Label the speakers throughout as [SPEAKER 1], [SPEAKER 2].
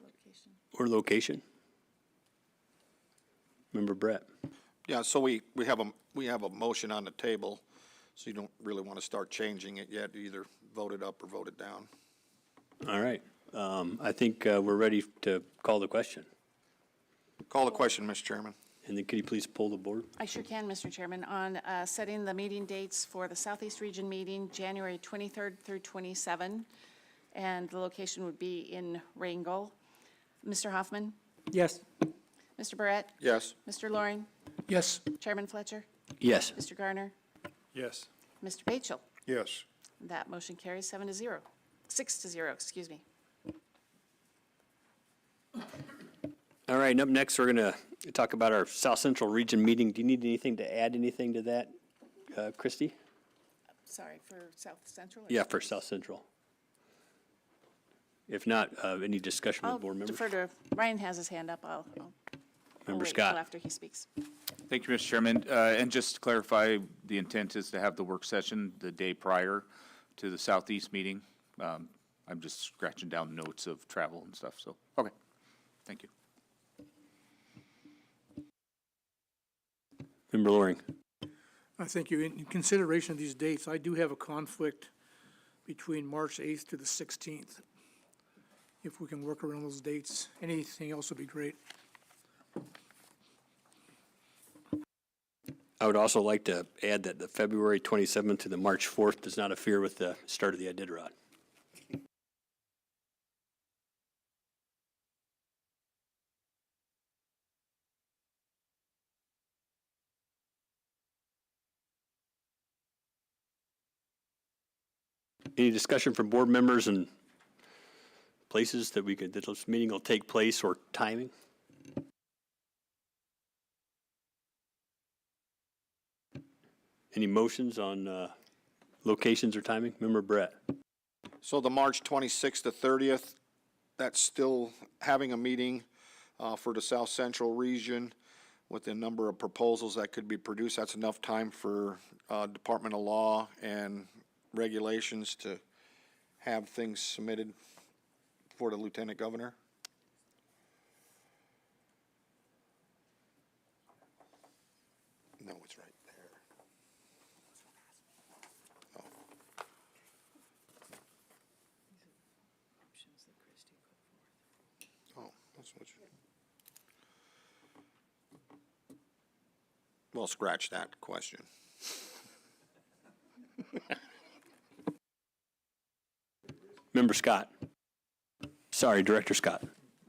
[SPEAKER 1] location.
[SPEAKER 2] or location? Member Brett?
[SPEAKER 3] Yeah, so we, we have a, we have a motion on the table, so you don't really want to start changing it yet, either vote it up or vote it down.
[SPEAKER 2] All right. Um, I think uh, we're ready to call the question.
[SPEAKER 3] Call the question, Mr. Chairman.
[SPEAKER 2] And then could you please pull the board?
[SPEAKER 1] I sure can, Mr. Chairman, on uh, setting the meeting dates for the Southeast Region meeting, January 23rd through 27, and the location would be in Rangel. Mr. Hoffman?
[SPEAKER 4] Yes.
[SPEAKER 1] Mr. Barrett?
[SPEAKER 3] Yes,
[SPEAKER 1] Mr. Loring?
[SPEAKER 4] Yes.
[SPEAKER 1] Chairman Fletcher?
[SPEAKER 2] Yes.
[SPEAKER 1] Mr. Garner?
[SPEAKER 4] Yes.
[SPEAKER 1] Mr. Batchel?
[SPEAKER 5] Yes.
[SPEAKER 1] That motion carries seven to zero, six to zero, excuse me.
[SPEAKER 2] All right, and up next, we're going to talk about our South Central Region meeting. Do you need anything to add anything to that, uh, Christie?
[SPEAKER 1] Sorry, for South Central?
[SPEAKER 2] Yeah, for South Central. If not, uh, any discussion
[SPEAKER 1] I'll
[SPEAKER 2] with board members?
[SPEAKER 1] defer to, Ryan has his hand up. I'll, I'll- I'll
[SPEAKER 2] Member
[SPEAKER 1] wait until
[SPEAKER 2] Scott?
[SPEAKER 1] after he speaks.
[SPEAKER 6] Thank you, Mr. Chairman. Uh, And just to clarify, the intent is to have the work session the day prior to the Southeast meeting. Um, I'm just scratching down notes of travel and stuff, so, okay. Thank you.
[SPEAKER 2] Member Loring?
[SPEAKER 4] I thank you. In in consideration of these dates, I do have a conflict between March 8th to the 16th. If we can work around those dates, anything else would be great.
[SPEAKER 2] I would also like to add that the February 27th to the March 4th does not interfere with the start of the Iditarod. Any discussion from board members and places that we could, that this meeting will take place or timing? Any motions on uh, locations or timing? Member Brett?
[SPEAKER 3] so the March twenty-sixth to thirtieth, that's still having a meeting, uh, for the South Central Region with the number of proposals that could be produced, that's enough time for, uh, Department of Law and regulations to have things submitted for the Lieutenant Governor. No, it's right there. Oh, that's what you. Well, scratch that question.
[SPEAKER 2] Member Scott? Sorry, Director Scott.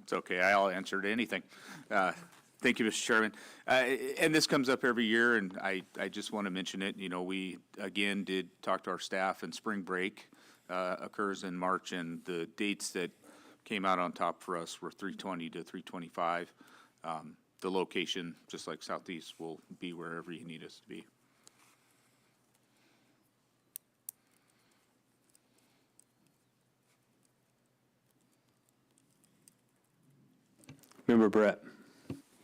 [SPEAKER 6] It's okay, I'll answer to anything. Uh, Thank you, Mr. Chairman. Uh, And this comes up every year, and I, I just want to mention it, you know, we, again, did talk to our staff, and spring break uh, occurs in March, and the dates that came out on top for us were 320 to 325. Um, The location, just like Southeast, will be wherever you need us to be.
[SPEAKER 2] Member Brett?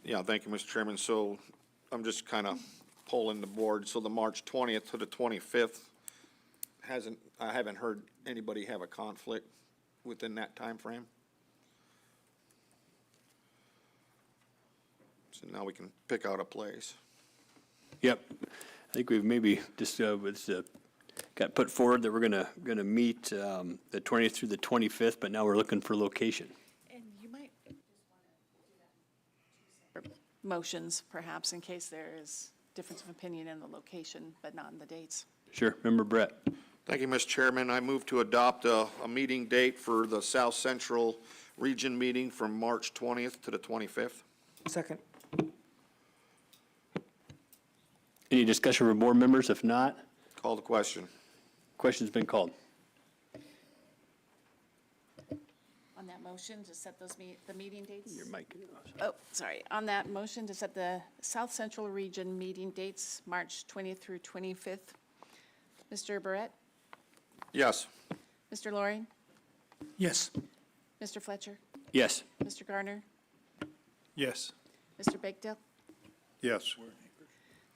[SPEAKER 3] Yeah, thank you, Mr. Chairman. So I'm just kind of polling the board. So the March 20th to the 25th hasn't, I haven't heard anybody have a conflict within that timeframe. So now we can pick out a place.
[SPEAKER 2] Yep. I think we've maybe just, uh, was, uh, got put forward that we're gonna, gonna meet, um, the twentieth through the twenty-fifth, but now we're looking for location.
[SPEAKER 1] And you might. Motions, perhaps, in case there is difference of opinion in the location, but not in the dates.
[SPEAKER 2] Sure, member Brett.
[SPEAKER 3] Thank you, Mr. Chairman. I move to adopt a, a meeting date for the South Central Region meeting from March 20th to the 25th.
[SPEAKER 4] Second.
[SPEAKER 2] Any discussion from board members? If not,
[SPEAKER 3] Call the question.
[SPEAKER 2] question's been called.
[SPEAKER 1] On that motion, to set those meet, the meeting dates?
[SPEAKER 2] Your mic.
[SPEAKER 1] Oh, sorry. On that motion, to set the South Central Region meeting dates, March 20th through 25th. Mr. Barrett?
[SPEAKER 3] Yes.
[SPEAKER 1] Mr. Loring?
[SPEAKER 4] Yes.
[SPEAKER 1] Mr. Fletcher?
[SPEAKER 2] Yes,
[SPEAKER 1] Mr. Garner?
[SPEAKER 4] Yes.
[SPEAKER 1] Mr. Bakedale?
[SPEAKER 5] Yes.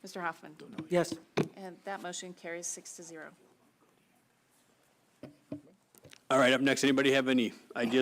[SPEAKER 1] Mr. Hoffman?
[SPEAKER 4] Yes.
[SPEAKER 1] And that motion carries six to zero.
[SPEAKER 2] all right, up next, anybody have any ideas